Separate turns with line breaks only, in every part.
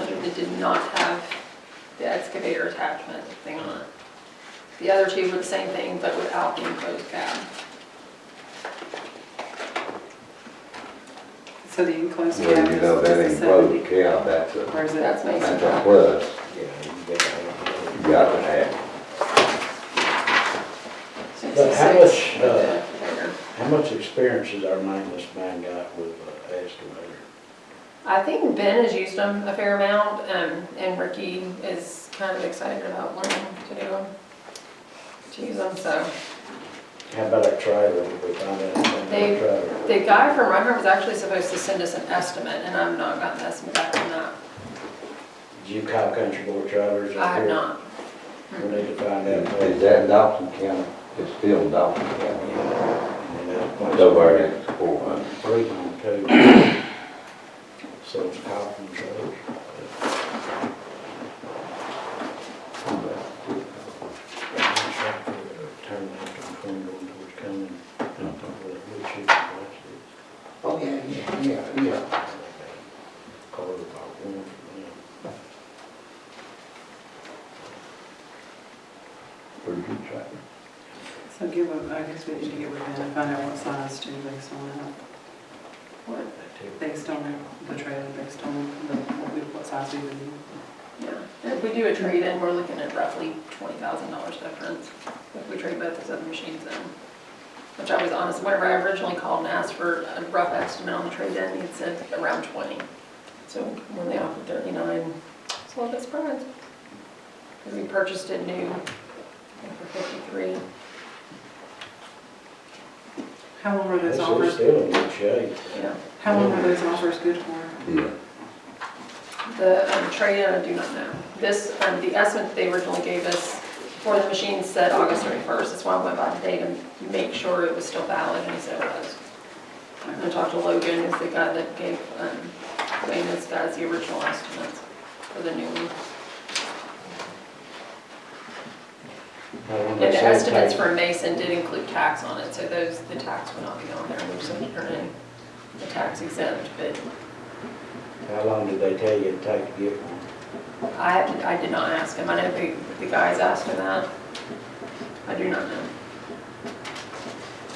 it did not have the excavator attachment thing on it. The other two were the same thing, but without the enclosed cab.
So the enclosed
Well,
cab
you
is
know, that
is
ain't
the 70?
broke, yeah, that's a,
Or is
That's
it,
Mason
that's a
Drive.
plus,
Yeah, you got
you got to have.
So it's
But
a
how
six with
much,
the
uh,
excavator.
How much experience has our maintenance man got with uh, excavator?
I think Ben has used them a fair amount, um, and Ricky is kind of excited about learning to do them. To use them, so.
How about our trailer, did we find out anything
They-
about our trailer?
The guy from Reinhardt was actually supposed to send us an estimate, and I've not gotten an estimate back from that.
Did you call country board trailers
I
up
have
here?
not.
We need to find out. what-
Mm-hmm. Is that Dawson County? It's still Dawson County.
And that's point-
So far, it's four hundred.
Three on two. So it's called from trailers. Turn left on Corn going towards Cumming.
Mm-hmm.
Where that wood chip is,
Oh, yeah, yeah, yeah, yeah.
that's it. Call it about one from there.
Pretty good tractor.
so give them, I guess we need to get with them and find out what size to based on that. What, based on the trailer, based on the, what we- what size we would need.
Yeah, if we do a trade-in, we're looking at roughly twenty thousand dollars difference if we trade both those other machines in. Which I was honest, whenever I originally called and asked for a rough estimate on the trade-in, it said around twenty. So when they offered thirty-nine, it's a little bit surprised. Because we purchased it new I think, for fifty-three.
How long were
This
those
is
offers,
still in good shape.
Yeah,
how long were those offers good for?
Yeah.
the um, trade-in, I do not know. This, um, the estimate that they originally gave us for the machine said August thirty-first. That's why I went by today to make sure it was still valid, and he said it was. I'm gonna talk to Logan, is the guy that gave, um, Wayne, this guy's the original estimates for the new one.
And
And the estimates for Mason did include tax on it, so those, the tax would not be on there, which is earning the tax exempt, but
How long did they tell you it'd take to get one?
I, I did not ask him, I know the, the guys asked him that. I do not know.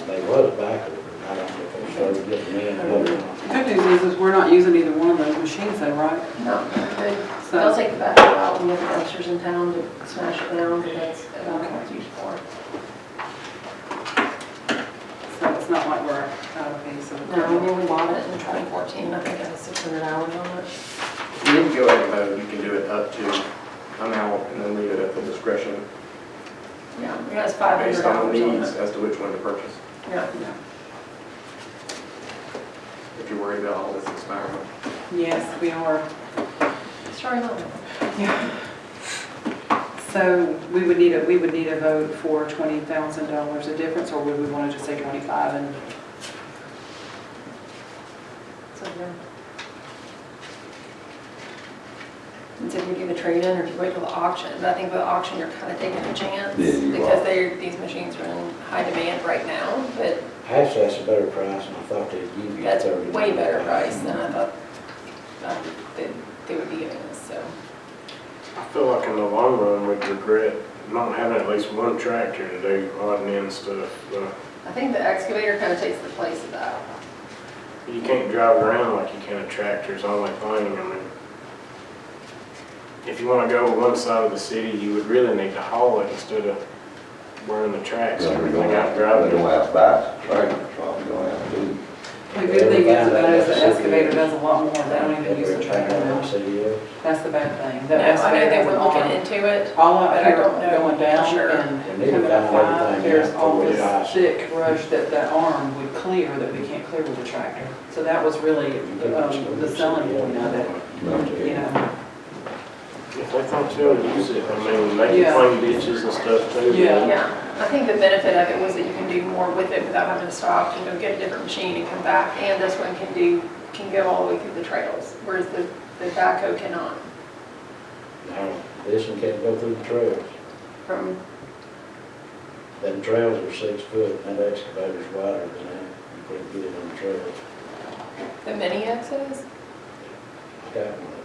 They was back ordered. I don't know if they started getting in. but, uh,
Good news is, is we're not using either one of those machines though, right?
No, they-
So-
they'll take the back out and look at dumpsters in town to smash it down, but that's about what it's used for.
So it's not like we're out of phase of.
No, I mean, we bought it in 2014, I think it has 600 hours on it.
In enjoying mode, you can do it up to an hour and then leave it at the discretion
Yeah, it has 500
based on
hours on
needs
it.
as to which one to purchase,
Yeah.
No.
if you're worried about all this expiring.
Yes, we are.
Sorry, no.
So we would need a, we would need a vote for twenty thousand dollars a difference, or would we want to just say twenty-five and?
It's up there. And so if you do the trade-in or if you wait till the auction, but I think with the auction, you're kind of taking a chance.
Yeah, you
Because
are.
they're, these machines are in high demand right now, but
Actually, that's a better price than I thought they'd give you.
that's a
$30.
way better price than I thought um, that they would be giving us, so.
I feel like in the long run, we'd regret not having at least one tractor to do odd and end stuff. But
I think the excavator kind of takes the place of that.
You can't drive around like you can a tractor, it's only thing, I mean. If you wanna go to one side of the city, you would really need to haul it instead of wearing the tracks and
They're
everything
gonna
out
have, they're
driving.
gonna have bass, right, that's all they're gonna have to do.
The good thing is about it is the excavator does a lot more, they don't even use the trailer now.
City is.
That's the bad thing.
No,
The
I know
excavator
they
has
were
an
looking
arm.
into it.
All up
I
here
don't know.
going down
Sure.
and
They need to
coming up
find everything
five, there's
out
all
before we
this
die.
thick brush that the arm would clear that we can't clear with a tractor. So that was really um, the selling point of it, you know.
If they thought you would use it, I mean, they
Yeah.
can clean ditches and stuff too. but-
Yeah.
Yeah, I think the benefit of it was that you can do more with it without having to stop and go get a different machine and come back. And this one can do, can go all the way through the trails, whereas the, the backhoe cannot
No, This one can't go through the trails.
from,
Them trails are six foot, and that excavator's wider than that. You couldn't get it on the trails.
the mini X's.
Got one.